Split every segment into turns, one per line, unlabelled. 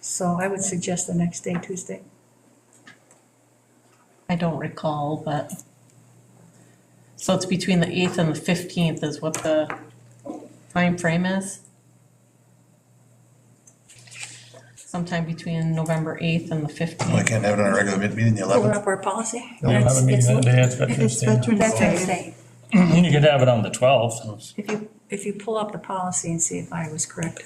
So I would suggest the next day, Tuesday.
I don't recall, but. So it's between the eighth and the fifteenth is what the time frame is? Sometime between November eighth and the
Well, I
fifteenth.
can't have it on a regular mid- meeting, the
Open
eleventh.
up our policy.
You'll have a meeting that day, it's Veterans
It's
Day.
Veterans
Veterans Day.
Day.
You could have it on the twelfth.
If you, if you pull up the policy and see if I was correct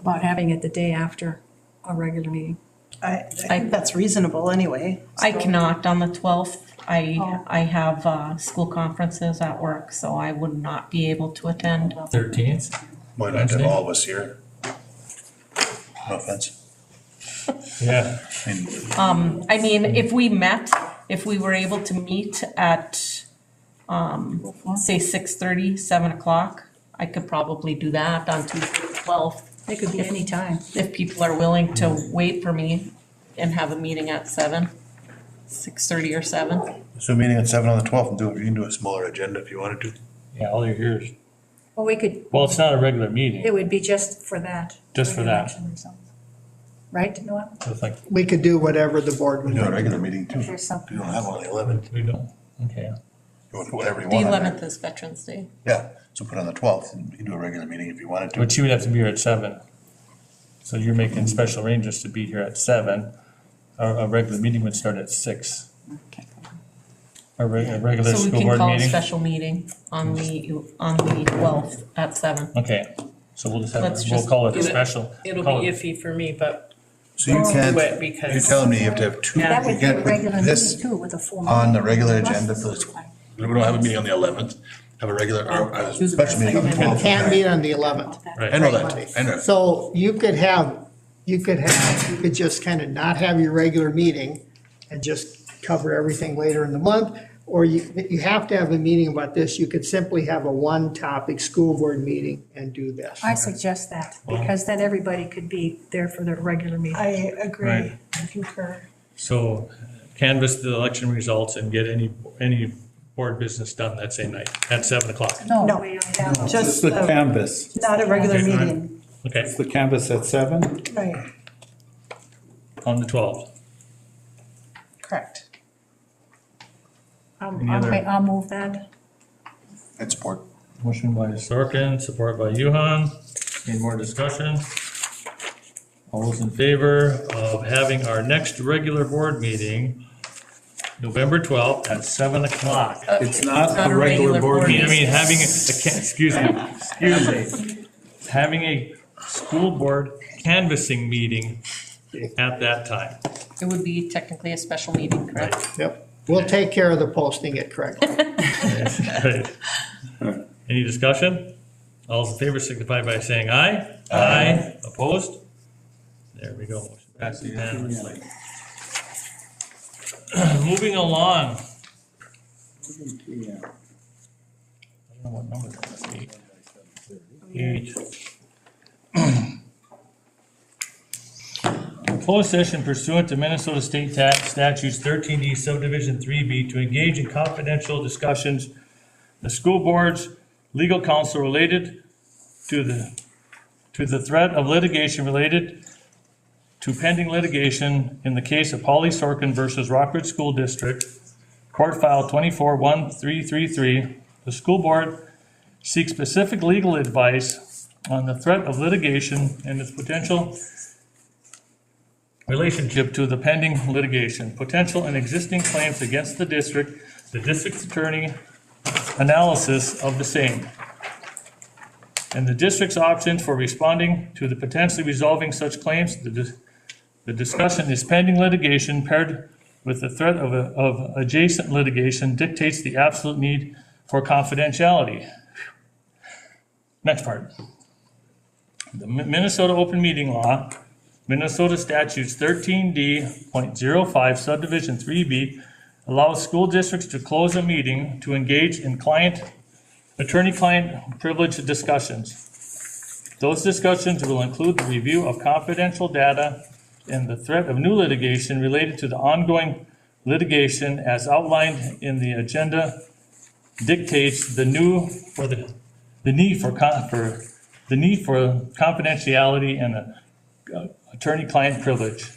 about having it the day after a regular meeting.
I, I think that's reasonable anyway.
I cannot on the twelfth. I, I have, uh, school conferences at work, so I would not be able to attend.
Thirteenth?
Why not have all of us here? No offense.
Yeah,
I mean,
Um, I mean, if we met, if we were able to meet at, um, say six thirty, seven o'clock, I could probably do that on Tuesday the twelfth,
It could be any time.
if people are willing to wait for me and have a meeting at seven, six thirty or seven.
So meeting at seven on the twelfth, and do, you can do a smaller agenda if you wanted to.
yeah, all you're here is,
Well, we could,
well, it's not a regular meeting,
it would be just for that.
Just for
like
that.
election or something. Right, Noel?
it's like,
We could do whatever the board
We
would
can do a
like.
regular meeting too.
There's something.
You don't have one on the eleventh,
we don't, okay.
you want to put whatever you
The
want on there.
eleventh is Veterans Day.
Yeah, so put on the twelfth, and you can do a regular meeting if you wanted to.
But you would have to be here at seven. So you're making special arrangements to be here at seven. Our, our regular meeting would start at six. Our reg- our regular
So we
school
can
board
call a
meeting.
special meeting on the, on the twelfth at seven.
Okay, so we'll just have,
Let's
we'll
just
call it
do
a
it.
special.
It'll
Call
be
it-
iffy for me, but
So you can't,
wet
you're
because
telling me you have to have two, you
That would be a
can't
regular
put
meeting
this
too with a full.
on the
meeting.
regular
Plus
agenda
the
for the
school time.
We don't have a meeting on the eleventh, have a regular, uh, or a special meeting on the
You
twelfth.
can't meet on the 11th.
I know that, I know.
So you could have, you could have, you could just kind of not have your regular meeting and just cover everything later in the month, or you, you have to have a meeting about this. You could simply have a one-topic school board meeting and do this.
I suggest that, because then everybody could be there for their regular meeting.
I agree,
Right.
I concur.
So canvass the election results and get any, any board business done that same night at seven o'clock.
No,
No.
we only have-
It's
Just
the
a-
canvas.
not a regular
Okay, fine.
meeting,
Okay,
It's the canvas at seven?
right,
on the twelfth.
correct.
Um, Okay, I'll move that.
And support.
Motion by Sorkin, support by Yuhan. Any more discussion? All those in favor of having our next regular board meeting, November twelfth at seven o'clock? I
It's not a regular board
mean, I
meeting.
mean, having, a- a ca- excuse me, excuse me, having a school board canvassing meeting at that time.
It would be technically a special meeting, correct?
Yep. We'll take care of the posting it correctly.
Right. Any discussion? All those in favor signify by saying aye. Aye. Opposed? There we go. Motion Passes unanimously. Moving along. I
Yeah.
don't know what number that must be. Eight. Closed session pursuant to Minnesota State Tax Statutes thirteen D subdivision three B to engage in confidential discussions the school board's legal counsel related to the, to the threat of litigation related to pending litigation in the case of Polly Sorkin versus Rockwood School District, court file twenty-four one three three three. The school board seeks specific legal advice on the threat of litigation and its potential relationship to the pending litigation, potential and existing claims against the district, the district attorney, analysis of the same, and the district's options for responding to the potentially resolving such claims. The dis- the discussion is pending litigation paired with the threat of a- of adjacent litigation dictates the absolute need for confidentiality. Next part. The Mi- Minnesota Open Meeting Law, Minnesota Statutes 13D.05 subdivision 3B allows school districts to close a meeting to engage in client, attorney-client privileged discussions. Those discussions will include the review of confidential data and the threat of new litigation related to the ongoing litigation as outlined in the agenda dictates the new, for the, the need for, con- for, the need for confidentiality and a uh, attorney-client privilege.